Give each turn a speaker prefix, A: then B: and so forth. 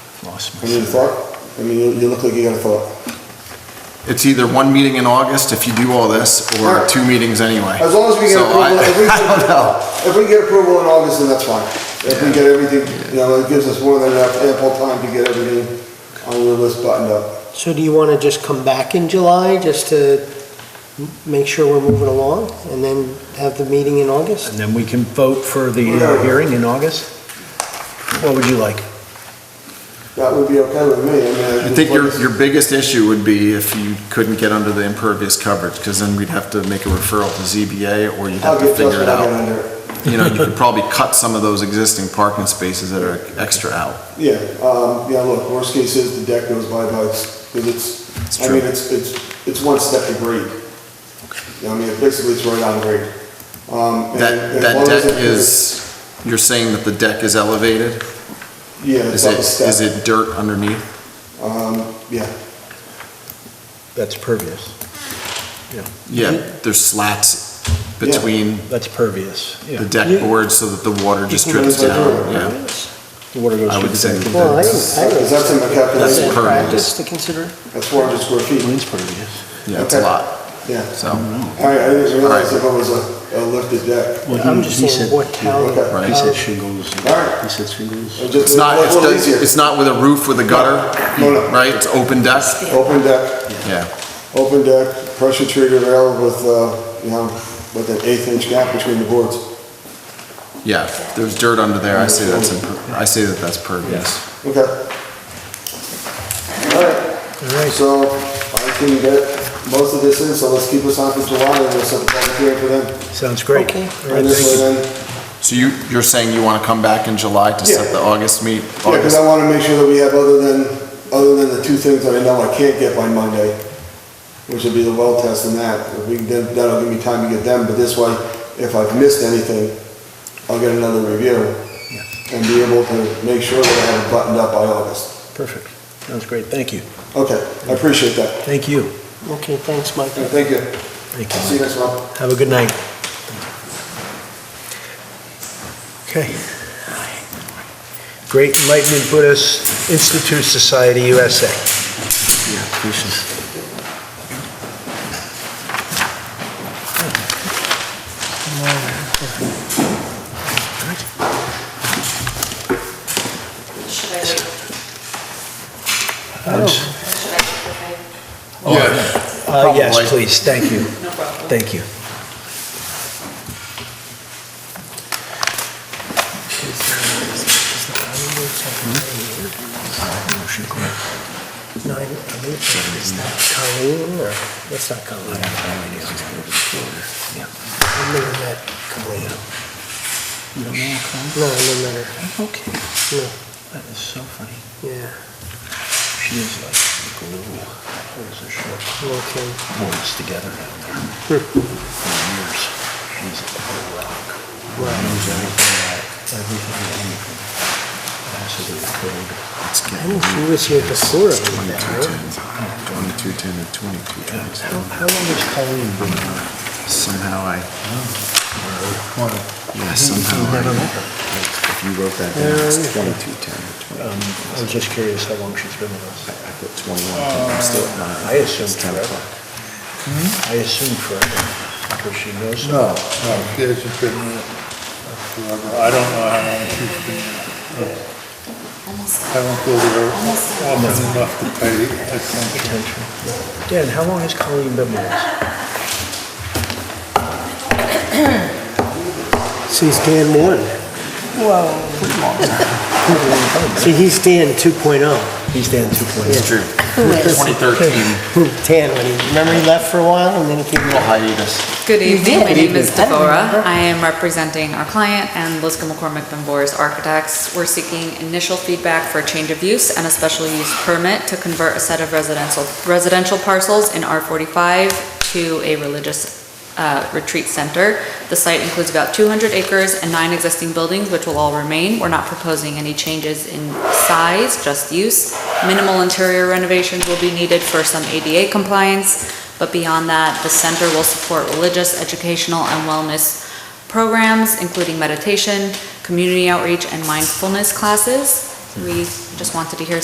A: Lost
B: I mean,
A: my,
B: thought, I mean, you, you look like you got a thought.
C: It's either one meeting in August if you do all this, or
B: Alright.
C: two meetings anyway.
B: As long as we get
C: So I-
B: approval, if we
C: I don't know.
B: get, if we get approval in August, then that's fine. If we
C: Yeah.
B: get everything, you know, it gives us more than enough ample time to get everything on your list buttoned up.
D: So do you want to just come back in July, just to m- make sure we're moving along, and then have the meeting in August?
A: and then we can vote for the uh, hearing in August? What would you like?
B: That would be okay with me, I mean.
C: I think your, your biggest issue would be if you couldn't get under the impervious coverage, because then we'd have to make a referral to ZBA, or you'd
B: I'll
C: have to
B: get just
C: figure
B: what
C: it
B: I get
C: out.
B: under. it.
C: You know, you could probably cut some of those existing parking spaces that are extra out.
B: Yeah, um, yeah, look, worst case is the deck goes by bugs, because
C: It's
B: it's, I
C: true.
B: mean, it's, it's, it's one step to grade. You know, I mean, it basically it's right on grade. Um, and- and
C: That,
B: as
C: that
B: long as
C: deck
B: it-
C: is, you're saying that the deck is elevated?
B: Yeah, it's
C: Is
B: up
C: it,
B: a step.
C: is it dirt underneath?
B: Um, yeah,
A: That's pervious.
C: Yeah,
B: Mm-hmm.
C: there's slats between
A: That's pervious,
C: the
A: yeah.
C: deck boards so that the water just
D: You can
C: drips
B: go
C: down,
B: through it,
C: yeah.
A: The water goes
C: I
A: through
C: would say
A: the deck.
D: Well, I
C: that's-
D: didn't, I
B: Is
D: didn't.
B: that in the
C: That's
B: calculation?
D: Is that
C: pervious.
D: practice to consider?
B: That's four hundred square feet,
A: Mine's pervious.
C: Yeah, it's a
B: Okay.
C: lot,
B: yeah.
C: so.
B: All right, I didn't realize
C: Alright.
B: that it was a, a lifted deck.
A: Well, he-
D: I'm just
A: he
D: saying
A: said-
D: what town.
B: okay.
C: Right.
A: He
D: how-
A: said shingles.
B: Alright.
A: He said shingles.
B: It just-
C: It's not,
B: it's a little
C: it's,
B: easier.
C: it's not with a roof with a gutter,
B: No, no.
C: right? It's open deck,
B: Open deck,
C: yeah.
B: open deck, pressure treated rail with, uh, you know, with an eighth inch gap between the boards.
C: Yeah, there's dirt under there, I say that's, imper- I say that that's pervious.
B: Okay. All right, so I can get most of this in, so let's keep this on for July and we'll set the public hearing for then.
A: Sounds great.
D: Okay.
A: All right,
B: And this
A: thank you.
B: way then,
C: So you, you're saying you wanna come back in July to set the August meet?
B: yeah, because I
C: August-
B: want to make sure that we have other than, other than the two things that I know I can't get by Monday, which would be the well test and that. If we, can- then that'll give me time to get them, but this way, if I've missed anything, I'll get another review
A: Yeah.
B: and be able to make sure that I have it buttoned up by August.
A: Perfect. Sounds great. Thank you.
B: Okay, I appreciate that.
A: Thank you.
D: Okay, thanks, Mike.
B: And thank you.
A: Thank
B: See
A: you.
B: you next month.
A: Have a good night. Okay. Great Enlightenment Buddhist Institute Society USA. Oh,
E: Should I wait?
A: I'm s-
E: Should I wait?
C: Oh,
A: Uh, yes,
C: Probably.
A: please, thank you,
E: Okay, No problem.
A: thank you.
D: Nine, I believe it's not Colleen, or, that's not Colleen. I never met Colleen. No, I never met her,
A: Okay,
D: no,
A: that is so funny.
D: yeah,
A: She is like glue, holds her short
D: okay.
A: boards together down there. For years, she's a rock. Knows everything about everything and anything. Absolute code.
C: It's
D: I think
C: getting-
D: she was here before I met her.
C: 2210, 2210, and 2220.
A: How, how long has Colleen been around?
C: Somehow I, yeah,
A: You
C: somehow I,
A: never met her?
C: if you wrote that down, it's 2210, or 20.
A: Um, I was just curious how long she's been with
C: I
A: us. Uh,
C: put 21, but I'm still at nine.
A: I assumed
C: It's 10
A: forever. Hmm?
C: o'clock.
A: I assume forever, because she knows. so
F: No, no, she hasn't been in it forever. I don't know how long she's been in it. I don't go there often enough to pay attention.
A: potential. Dan, how long has Colleen been with us?
D: She's Dan one. Whoa. See, he's Dan two oh.
A: He's Dan 2.0.
C: It's true. 2013,
D: 10 when he, remember he left for a while and then he came
C: little
D: back?
C: hiatus.
G: Good evening, my name is
D: I don't
G: Devorah. I am representing our client and Liska McCormick Benboris Architects. We're seeking initial feedback for a change of use and a special use permit to convert a set of residential, residential parcels in R45 to a religious uh, retreat center. The site includes about 200 acres and nine existing buildings, which will all remain. We're not proposing any changes in size, just use. Minimal interior renovations will be needed for some ADA compliance, but beyond that, the center will support religious, educational, and wellness programs, including meditation, community outreach, and mindfulness classes. We just wanted to hear